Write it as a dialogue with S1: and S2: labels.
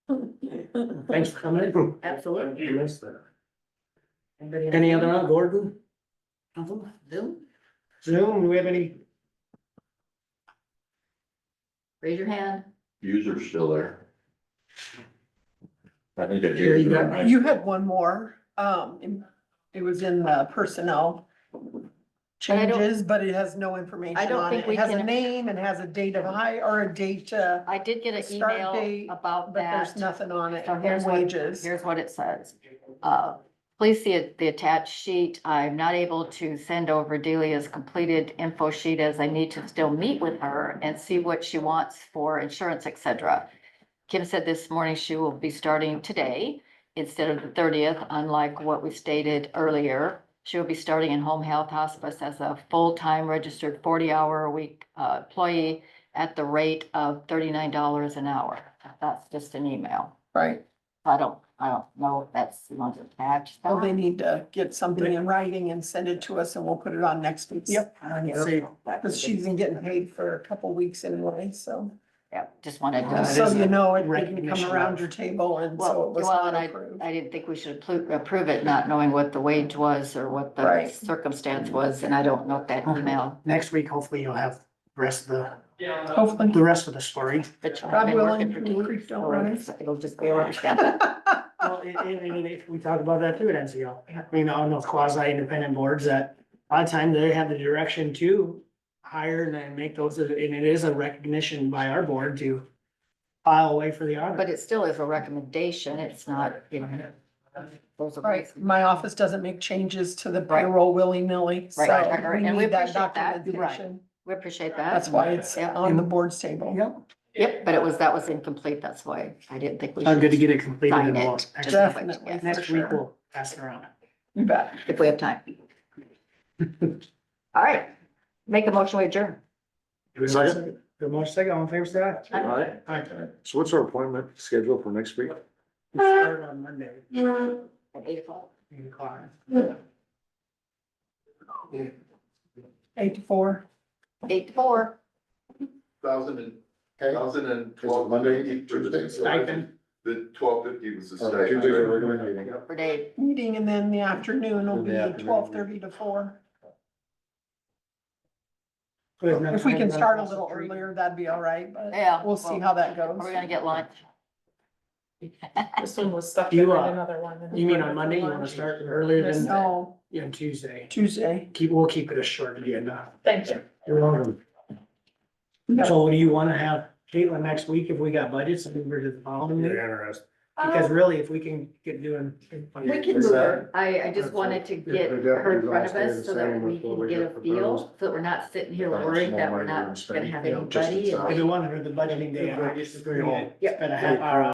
S1: Thanks for coming in.
S2: Absolutely.
S1: You missed that.
S2: Anybody have
S1: Any other, Gordon?
S2: Nothing? Zoom,
S1: Zoom, do we have any?
S2: raise your hand.
S3: User's still there. I think that.
S1: Here you go.
S3: user-
S4: You had one more, um, in- it was in the personnel
S2: I don't-
S4: changes, but it has no information
S2: I don't
S4: on
S2: think
S4: it.
S2: we
S4: It has a
S2: can-
S4: name and has a date of hire or a date, uh,
S2: I did get an
S4: Start
S2: email
S4: date,
S2: about
S4: but
S2: that.
S4: there's nothing on it,
S2: So
S4: and
S2: here's what-
S4: wages.
S2: Here's what it says. Uh, Please see it- the attached sheet. I'm not able to send over Delia's completed info sheet as I need to still meet with her and see what she wants for insurance, et cetera. Kim said this morning she will be starting today instead of the thirtieth, unlike what we stated earlier. She will be starting in home health hospice as a full-time registered forty-hour-a-week uh, employee at the rate of thirty-nine dollars an hour. That's just an email.
S4: Right,
S2: I don't, I don't know if that's not attached.
S4: well, they need to get something in writing and send it to us and we'll put it on next week's.
S1: Yep. See,
S4: Cause she's been getting paid for a couple weeks anyway, so,
S2: Yeah, just wanted
S1: That
S2: to,
S4: so
S1: is
S4: you
S1: a
S4: know, it didn't
S1: recognition
S4: come
S1: of-
S4: around your table and so
S2: Well,
S4: it was
S2: well, and
S4: not approved.
S2: I didn't think we should appro- approve it, not knowing what the wage was or what the
S4: Right. Uh-huh.
S2: circumstance was, and I don't know if that email,
S1: Next week, hopefully you'll have the rest of the,
S4: Hopefully.
S1: the rest of the story.
S2: but I've
S4: God
S2: been working
S4: willing,
S2: for
S4: Blue
S2: days,
S4: Creek don't
S2: so
S4: rise.
S2: it's- it'll just be overstep.
S1: Well, I, I mean, if we talk about that too at NCO, I mean, on those quasi-independent boards that a lot of times they have the direction to hire and then make those, and it is a recognition by our board to file away for the audit.
S2: But it still is a recommendation, it's not, you know. there's a
S4: Right,
S2: reason.
S4: my office doesn't make changes to the
S2: Right.
S4: payroll willy-nilly, so
S2: Right, right, right,
S4: we
S2: and we
S4: need that
S2: appreciate that, you're right.
S4: documentation.
S2: We appreciate that.
S4: That's why it's
S2: Yeah.
S4: on the board's table.
S1: Yep,
S2: Yep, but it was, that was incomplete, that's why I didn't think we should.
S1: I'm good to get it completed
S2: sign
S1: and
S2: it,
S1: we'll,
S2: just
S1: next-
S2: that way,
S4: Definitely.
S2: yes,
S1: next
S4: for
S1: week
S4: sure.
S1: we'll pass it around.
S4: You bet.
S2: If we have time. All right, make a motion, we adjourn.
S1: Second. The motion second, all in favor, say aye.
S3: Alright.
S1: Aye.
S3: So what's our appointment schedule for next week?
S1: We start on Monday,
S2: At eight o'clock.
S1: eight o'clock.
S4: Eight to four.
S2: Eight to four.
S5: Thousand and,
S3: Okay.
S5: thousand and
S3: Is it
S5: twelve.
S3: Monday, Tuesday?
S1: Stipend.
S5: The twelve fifty was the
S3: Uh,
S5: stipend.
S3: Tuesday's a regular meeting.
S2: For Dave.
S4: Meeting and then the afternoon will
S3: In the
S4: be
S3: afternoon.
S4: twelve thirty to four.
S1: Good, next
S4: If we
S1: time
S4: can
S1: run
S4: start a
S1: across the
S4: little
S1: street.
S4: earlier, that'd be all right, but
S2: Yeah.
S4: we'll see how that goes.
S2: Are we gonna get lunch?
S6: This one was stuck
S1: You,
S6: behind
S1: uh,
S6: another one. and-
S1: You mean on Monday, you wanna start earlier than,
S4: No,
S1: yeah, Tuesday?
S4: Tuesday.
S1: Keep, we'll keep it a short agenda.
S6: Thank you.
S1: You're welcome.
S4: No.
S1: So do you wanna have Caitlin next week if we got budgets and we're to the following week?
S3: interested.
S1: Because really, if we can get doing.
S2: We can move her. I, I just
S3: That's
S2: wanted to get
S3: It would
S2: her in
S3: definitely
S2: front of
S3: last
S2: us
S3: day
S2: so
S3: the
S2: that
S3: same
S2: we
S3: with what
S2: can
S3: we
S2: get a
S3: just proposed.
S2: feel, so that we're not sitting here
S3: That's
S2: worried that
S3: more
S2: we're
S3: like
S2: not
S3: it's
S2: gonna
S3: been,
S2: have
S3: you know, just
S2: anybody.
S3: inside.
S1: If we want her the budgeting day,
S3: Yeah.
S1: I guess it's gonna be a half hour